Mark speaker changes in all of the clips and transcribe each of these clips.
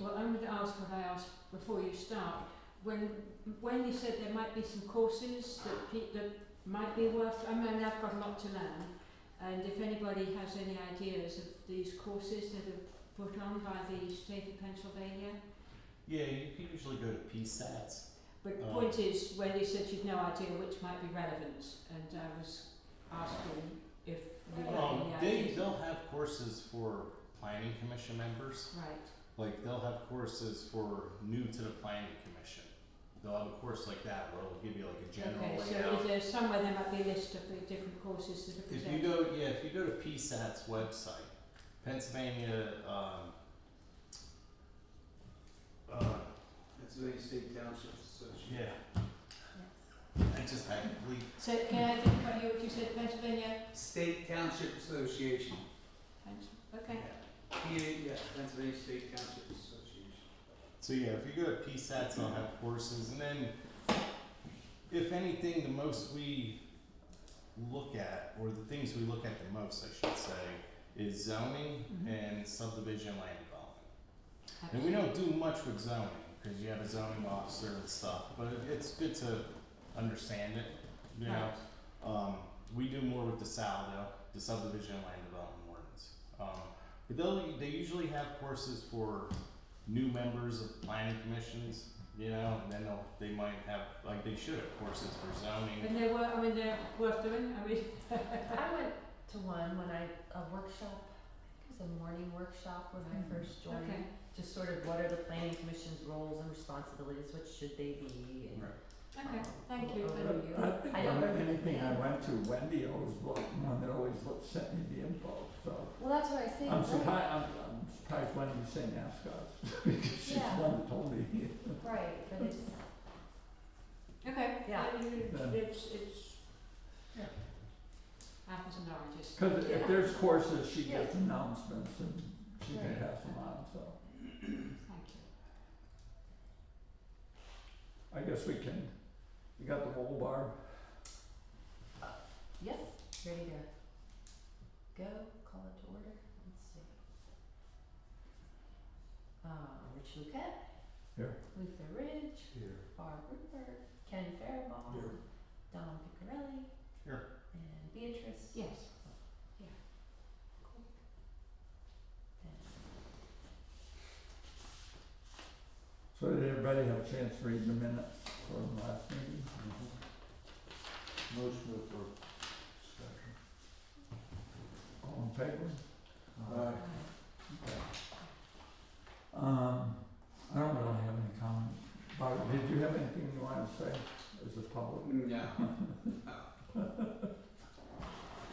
Speaker 1: Well, I'm going to ask what I asked before you start. When when you said there might be some courses that pe- that might be worth, I mean, I've got a lot to learn, and if anybody has any ideas of these courses that are put on by the state of Pennsylvania,
Speaker 2: Yeah, you can usually go to PSATs.
Speaker 1: but the
Speaker 2: Um,
Speaker 1: point is, when you said you'd no idea which might be relevant, and I was asking if you had
Speaker 2: Um,
Speaker 1: any
Speaker 2: they
Speaker 1: ideas.
Speaker 2: they'll have courses for planning commission members.
Speaker 1: Right,
Speaker 2: Like they'll have courses for new to the planning commission. They'll have a course like that where it'll give you like a general
Speaker 1: okay, so
Speaker 2: layout.
Speaker 1: is there somewhere there might be a list of the different courses that are
Speaker 2: If
Speaker 1: presented?
Speaker 2: you go, yeah, if you go to PSAT's website, Pennsylvania, um, uh,
Speaker 3: Pennsylvania State Townships Association.
Speaker 2: yeah, I just had a complete
Speaker 1: So can I think what you, you said Pennsylvania?
Speaker 3: State Township Association.
Speaker 1: Pens- Okay.
Speaker 3: PA, yeah, Pennsylvania State Township Association.
Speaker 2: So yeah, if you go to PSATs, I'll have courses, and then if anything, the most we look at, or the things we look at the most, I should say, is zoning
Speaker 1: Mhm.
Speaker 2: and subdivision land development. And we don't do much with zoning because you have a zoning officer and stuff, but it- it's good to understand it. You know, um, we do more with the SAL though, the subdivision and land development ordinance. Um, but they'll, they usually have courses for new members of planning commissions, you know, and then they'll, they might have, like, they should have courses for zoning.
Speaker 1: And they were, I mean, they're worth doing, I mean,
Speaker 4: I went to one when I, a workshop, I think it was a morning workshop when I
Speaker 1: Mm.
Speaker 4: first joined.
Speaker 1: okay.
Speaker 4: Just sort of what are the planning commission's roles and responsibilities, what should they be and.
Speaker 2: Right.
Speaker 1: Okay, thank you.
Speaker 4: Over
Speaker 1: Thank
Speaker 4: you.
Speaker 5: I think
Speaker 4: I don't-
Speaker 5: more than anything, I went to Wendy, always was the one that always looked- sent me the info, so.
Speaker 4: Well, that's what I say,
Speaker 5: I'm
Speaker 4: right,
Speaker 5: surprised, I'm, I'm surprised Wendy sent NASCAR, because she's the
Speaker 4: Yeah.
Speaker 5: one that told me.
Speaker 4: right, but it's,
Speaker 1: Okay,
Speaker 4: Yeah.
Speaker 1: I mean, it's,
Speaker 5: Yeah.
Speaker 1: it's, it's.
Speaker 5: Yeah.
Speaker 1: Apples and oranges.
Speaker 5: Cause
Speaker 4: Yeah.
Speaker 5: if there's courses, she
Speaker 4: Yeah.
Speaker 5: gets announcements and she
Speaker 4: Right.
Speaker 5: could have some on, so.
Speaker 1: Thank you.
Speaker 5: I guess we can, you got the whole bar,
Speaker 4: yes, ready to go, call it to order, let's see. Uh, Rich Luquette.
Speaker 5: Here.
Speaker 4: Luther Ridge,
Speaker 3: Here.
Speaker 4: Barb Rupert, Ken Faribault.
Speaker 5: Here.
Speaker 4: Don Piccarelli.
Speaker 2: Here.
Speaker 4: And Beatrice.
Speaker 1: Yes,
Speaker 4: Cool.
Speaker 5: so did everybody have a chance to read the minutes from last meeting?
Speaker 3: Motion to approve. Second.
Speaker 5: All in favor?
Speaker 4: And,
Speaker 3: Aye.
Speaker 4: uh,
Speaker 5: Um, I don't really have any comment. Barbara, did you have anything you wanted to say as a public?
Speaker 3: No. No. Oh.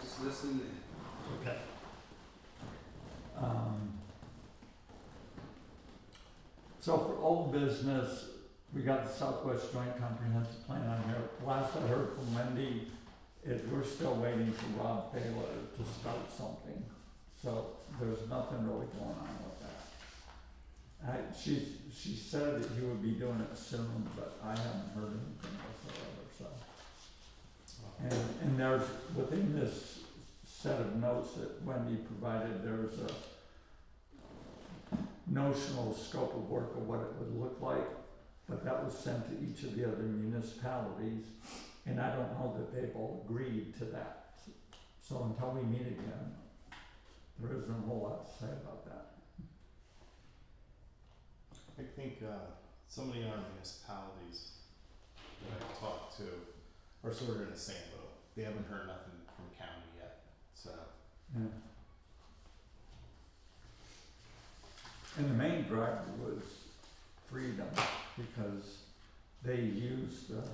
Speaker 3: Just listen in.
Speaker 5: Okay. Um, so for old business, we got the Southwest Joint Comprehensive Plan on here. Last I heard from Wendy, is we're still waiting for Rob Taylor to start something. So there's nothing really going on with that. I, she, she said that he would be doing it soon, but I haven't heard anything whatsoever, so. And, and there's, within this set of notes that Wendy provided, there's a notional scope of work of what it would look like, but that was sent to each of the other municipalities, and I don't know that they've all agreed to that. So until we meet again, there isn't a whole lot to say about that.
Speaker 2: I think, uh, some of the other municipalities that I've talked to are sort of in the same boat. They haven't heard nothing from county yet, so.
Speaker 5: Yeah. And the main driver was freedom, because they used the